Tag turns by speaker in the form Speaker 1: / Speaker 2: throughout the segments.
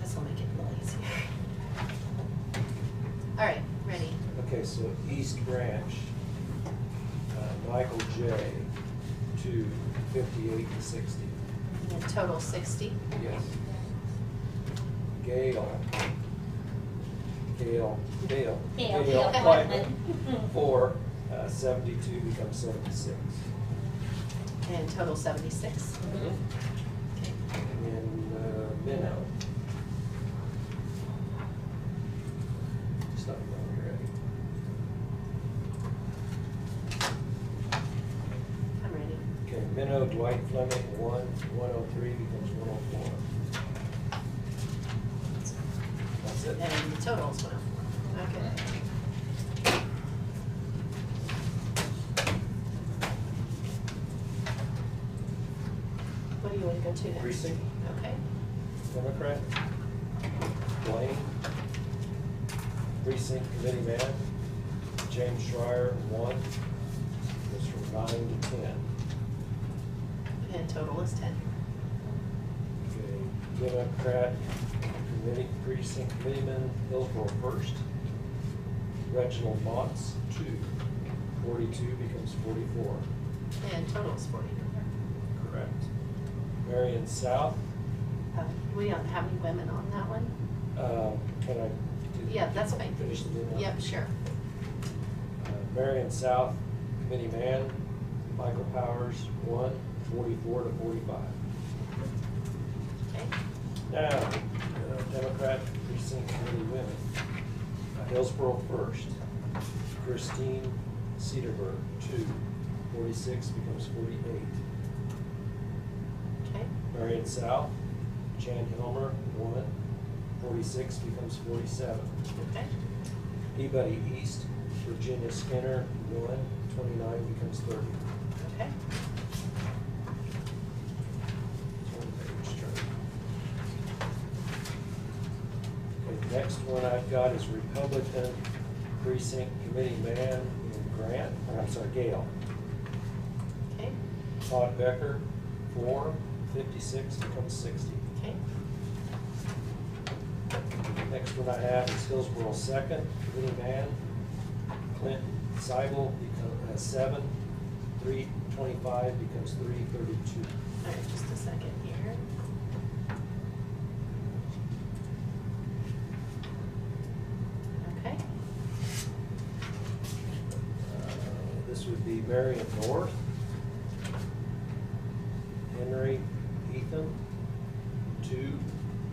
Speaker 1: This'll make it a little easier. All right, ready?
Speaker 2: Okay, so East Branch, uh, Michael J. to fifty-eight and sixty.
Speaker 1: And the Total sixty.
Speaker 2: Yes. Gail. Gail, Dale.
Speaker 3: Dale,
Speaker 2: Dale
Speaker 3: Dale
Speaker 2: Whiteman.
Speaker 3: Whiteman.
Speaker 2: For uh, seventy-two becomes seventy-six.
Speaker 1: And total seventy-six. Okay.
Speaker 2: And then uh, Minnow. It's not going here, right?
Speaker 1: I'm ready.
Speaker 2: Okay, Minnow Dwight Fleming, one, one oh three becomes one oh four. That's it.
Speaker 1: And the total is one oh four. Okay. What do you wanna go to next?
Speaker 2: Precinct.
Speaker 1: Okay.
Speaker 2: Democrat, Blaine, precinct committee man, James Schreier, one, goes from nine to ten.
Speaker 1: And total is ten.
Speaker 2: Okay, Democrat committee, precinct committee man, Hillsborough first, Reginald Motts, two, forty-two becomes forty-four.
Speaker 1: And total is forty.
Speaker 2: Correct. Marion South,
Speaker 1: Uh, We don't have any women on that one?
Speaker 2: uh, can I? do-
Speaker 1: Yeah, that's fine.
Speaker 2: Finish the name?
Speaker 1: Yep, sure.
Speaker 2: Uh, Marion South, committee man, Michael Powers, one, forty-four to forty-five.
Speaker 1: Okay.
Speaker 2: Now, uh, Democrat precinct committee women, Uh, Hillsborough first, Christine Cedarburg, two, forty-six becomes forty-eight.
Speaker 1: Okay.
Speaker 2: Marion South, Jan Hilmer, one, forty-six becomes forty-seven.
Speaker 1: Okay.
Speaker 2: Peabody East, Virginia Skinner, one, twenty-nine becomes thirty.
Speaker 1: Okay.
Speaker 2: Okay, Next one I've got is Republican Precinct Committee Man in Grant, or I'm sorry, Gale.
Speaker 1: Okay.
Speaker 2: Todd Becker, four, fifty-six becomes sixty.
Speaker 1: Okay.
Speaker 2: Next one I have is Hillsborough Second Committee Man, Clint Seibel, become, uh, seven, three twenty-five becomes three thirty-two.
Speaker 1: All right, just a second here. Okay.
Speaker 2: Uh, This would be Marion North, Henry Ethan, two,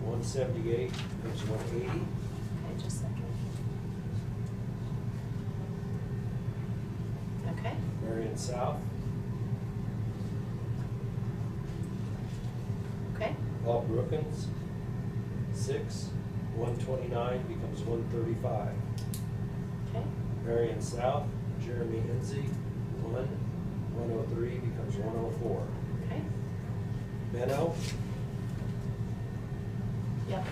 Speaker 2: one seventy-eight, becomes one eighty.
Speaker 1: Okay, just a second. Okay.
Speaker 2: Marion South,
Speaker 1: Okay.
Speaker 2: Bob Brookins, six, one twenty-nine, becomes one thirty-five.
Speaker 1: Okay.
Speaker 2: Marion South, Jeremy Enzi, one, one oh three, becomes one oh four.
Speaker 1: Okay.
Speaker 2: Benno,
Speaker 1: Yep.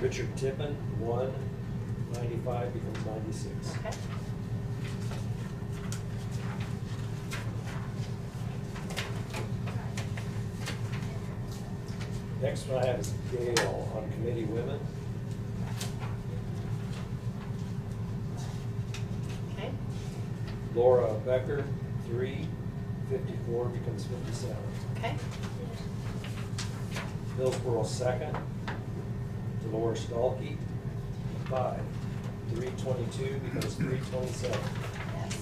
Speaker 2: Richard Tippin, one, ninety-five, becomes ninety-six.
Speaker 1: Okay.
Speaker 2: Next one I have is Gail on committee women.
Speaker 1: Okay.
Speaker 2: Laura Becker, three, fifty-four becomes fifty-seven.
Speaker 1: Okay.
Speaker 2: Hillsborough second. Dolores Dahlke, five, three twenty-two becomes three twenty-seven.
Speaker 1: Yes.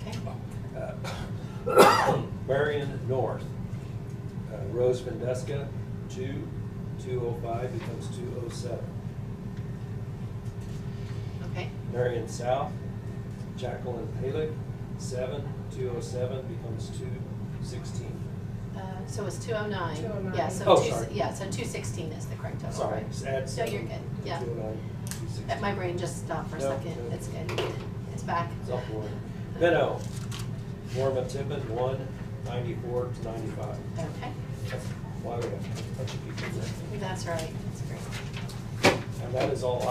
Speaker 1: Okay.
Speaker 2: Uh, Marion North, uh, Rose Vandeska, two, two oh five becomes two oh seven.
Speaker 1: Okay.
Speaker 2: Marion South, Jacqueline Palick, seven, two oh seven becomes two sixteen.
Speaker 1: Uh, So it's two oh nine?
Speaker 3: 209.
Speaker 1: Yeah, so
Speaker 2: Oh,
Speaker 1: two-
Speaker 2: sorry.
Speaker 1: Yeah, so two sixteen is the correct total,
Speaker 2: Sorry,
Speaker 1: right?
Speaker 2: just add
Speaker 1: So
Speaker 2: seven.
Speaker 1: you're good, yeah.
Speaker 2: Two oh nine, two sixteen.
Speaker 1: Uh, My brain just stopped for a
Speaker 2: No,
Speaker 1: second,
Speaker 2: no.
Speaker 1: it's good, it's back.
Speaker 2: It's up for it. Benno, Norma Tippin, one, ninety-four to ninety-five.
Speaker 1: Okay,
Speaker 2: That's why we have a bunch of people there.
Speaker 1: that's right, that's great.
Speaker 2: And that is all